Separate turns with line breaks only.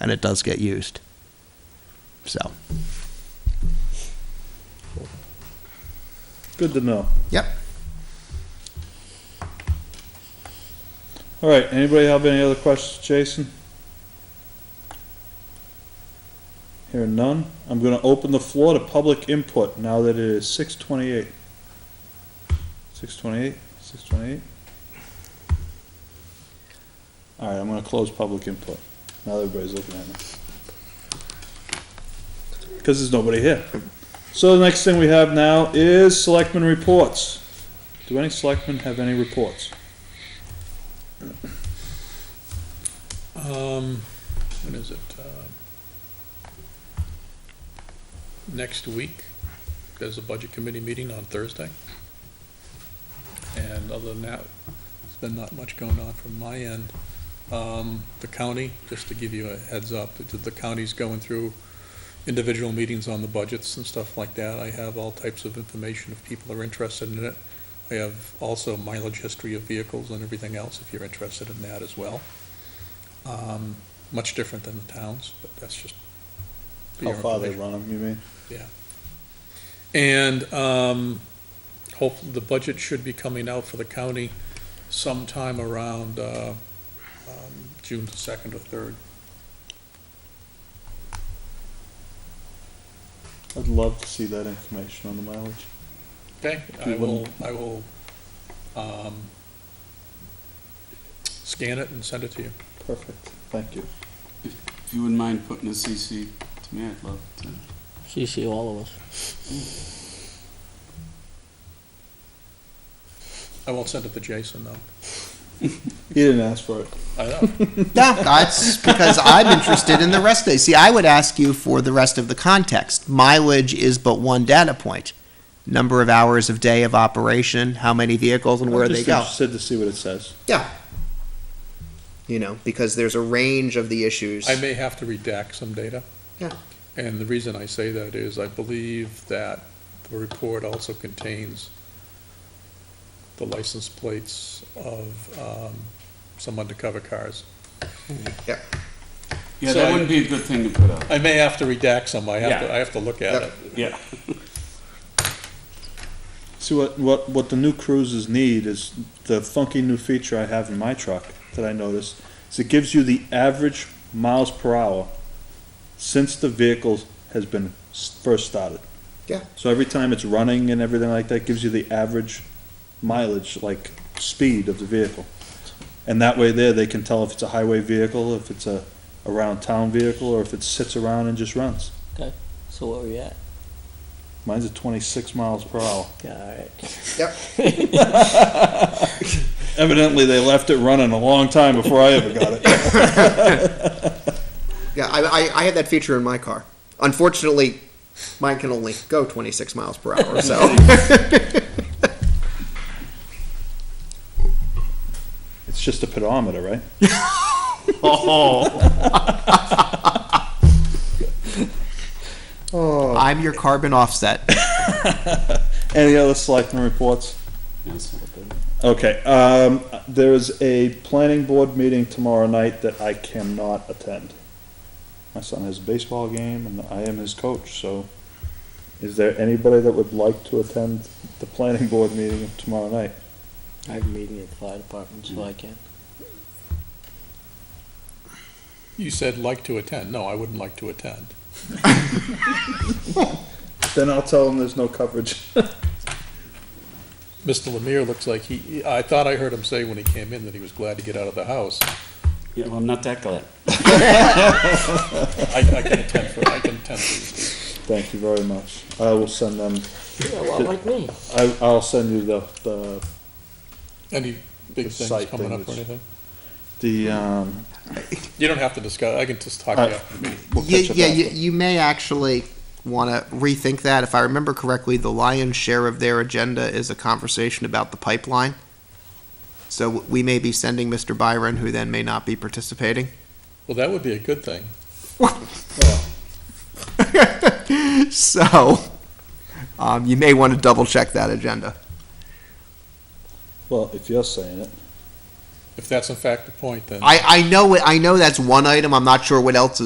and it does get used. So,
Good to know.
yep.
All right, anybody have any other questions, Jason? Hearing none, I'm gonna open the floor to public input now that it is six twenty-eight. Six twenty-eight, six twenty-eight. All right, I'm gonna close public input, now that everybody's looking at me. Cause there's nobody here. So the next thing we have now is selectmen reports. Do any selectmen have any reports?
Um, when is it? Uh, Next week, there's a budget committee meeting on Thursday. And other than that, there's been not much going on from my end. Um, the county, just to give you a heads up, the- the county's going through individual meetings on the budgets and stuff like that. I have all types of information if people are interested in it. I have also mileage history of vehicles and everything else if you're interested in that as well. Um, much different than the towns, but that's just. for
How
your
far they run
information.
them, you mean?
And, um, hopefully, the budget should be coming out for the county sometime around, uh, um, June second or third.
I'd love to see that information on the mileage.
Okay, I
You
will,
wouldn't-
I will, um, scan it and send it to you.
Perfect, thank you.
If you wouldn't mind putting a CC to me, I'd love to.
CC all of us.
I won't send it to Jason, though.
He didn't ask for it.
I know.
Yeah, that's because I'm interested in the rest of it. See, I would ask you for the rest of the context. Mileage is but one data point. Number of hours of day of operation, how many vehicles and where
I'm
they
just
go.
Interested to see what it says.
Yeah. You know, because there's a range of the issues.
I may have to redact some data.
Yeah.
And the reason I say that is I believe that the report also contains the license plates of, um, some undercover cars.
Yeah,
So I-
that wouldn't be a good thing to put up.
I may have to redact some, I have to, I
Yeah.
have to look at
Yeah.
it.
Yeah.
See, what, what, what the new cruises need is the funky new feature I have in my truck that I noticed, is it gives you the average miles per hour since the vehicle has been s- first started.
Yeah.
So every time it's running and everything like that, gives you the average mileage, like speed of the vehicle. And that way there, they can tell if it's a highway vehicle, if it's a around town vehicle, or if it sits around and just runs.
So where are we at?
Mine's at twenty-six miles per hour.
Alright.
Evidently, they left it running a long time before I ever got it.
Yeah, I, I, I had that feature in my car. Unfortunately, mine can only go 26 miles per hour, so.
It's just a pedometer, right?
I'm your carbon offset.
Any other selectmen reports?
Yes.
Okay, um, there is a planning board meeting tomorrow night that I cannot attend. My son has a baseball game and I am his coach, so is there anybody that would like to attend the planning board meeting tomorrow night?
I have a meeting at the fire department, so I can.
You said like to attend, no, I wouldn't like to attend.
Then I'll tell them there's no coverage.
Mr. Lemire looks like he, I thought I heard him say when he came in that he was glad to get out of the house.
Yeah, well, I'm not that glad.
I, I can attend for, I can attend for
Thank you very much. I will send them,
Yeah, well, like me.
I, I'll send you the, the
any big
The
things
site
coming
thing
up or
is-
anything.
The, um,
You don't have to discuss, I can just talk
Uh,
to you.
we'll
Yeah,
catch up
yeah you,
after.
you may actually want to rethink that. If I remember correctly, the lion's share of their agenda is a conversation about the pipeline. So we may be sending Mr. Byron, who then may not be participating.
Well, that would be a good thing.
so um, you may want to double check that agenda.
Well, if you're saying it,
If that's in fact the point, then.
I, I know it, I know that's one item. I'm not sure what else is.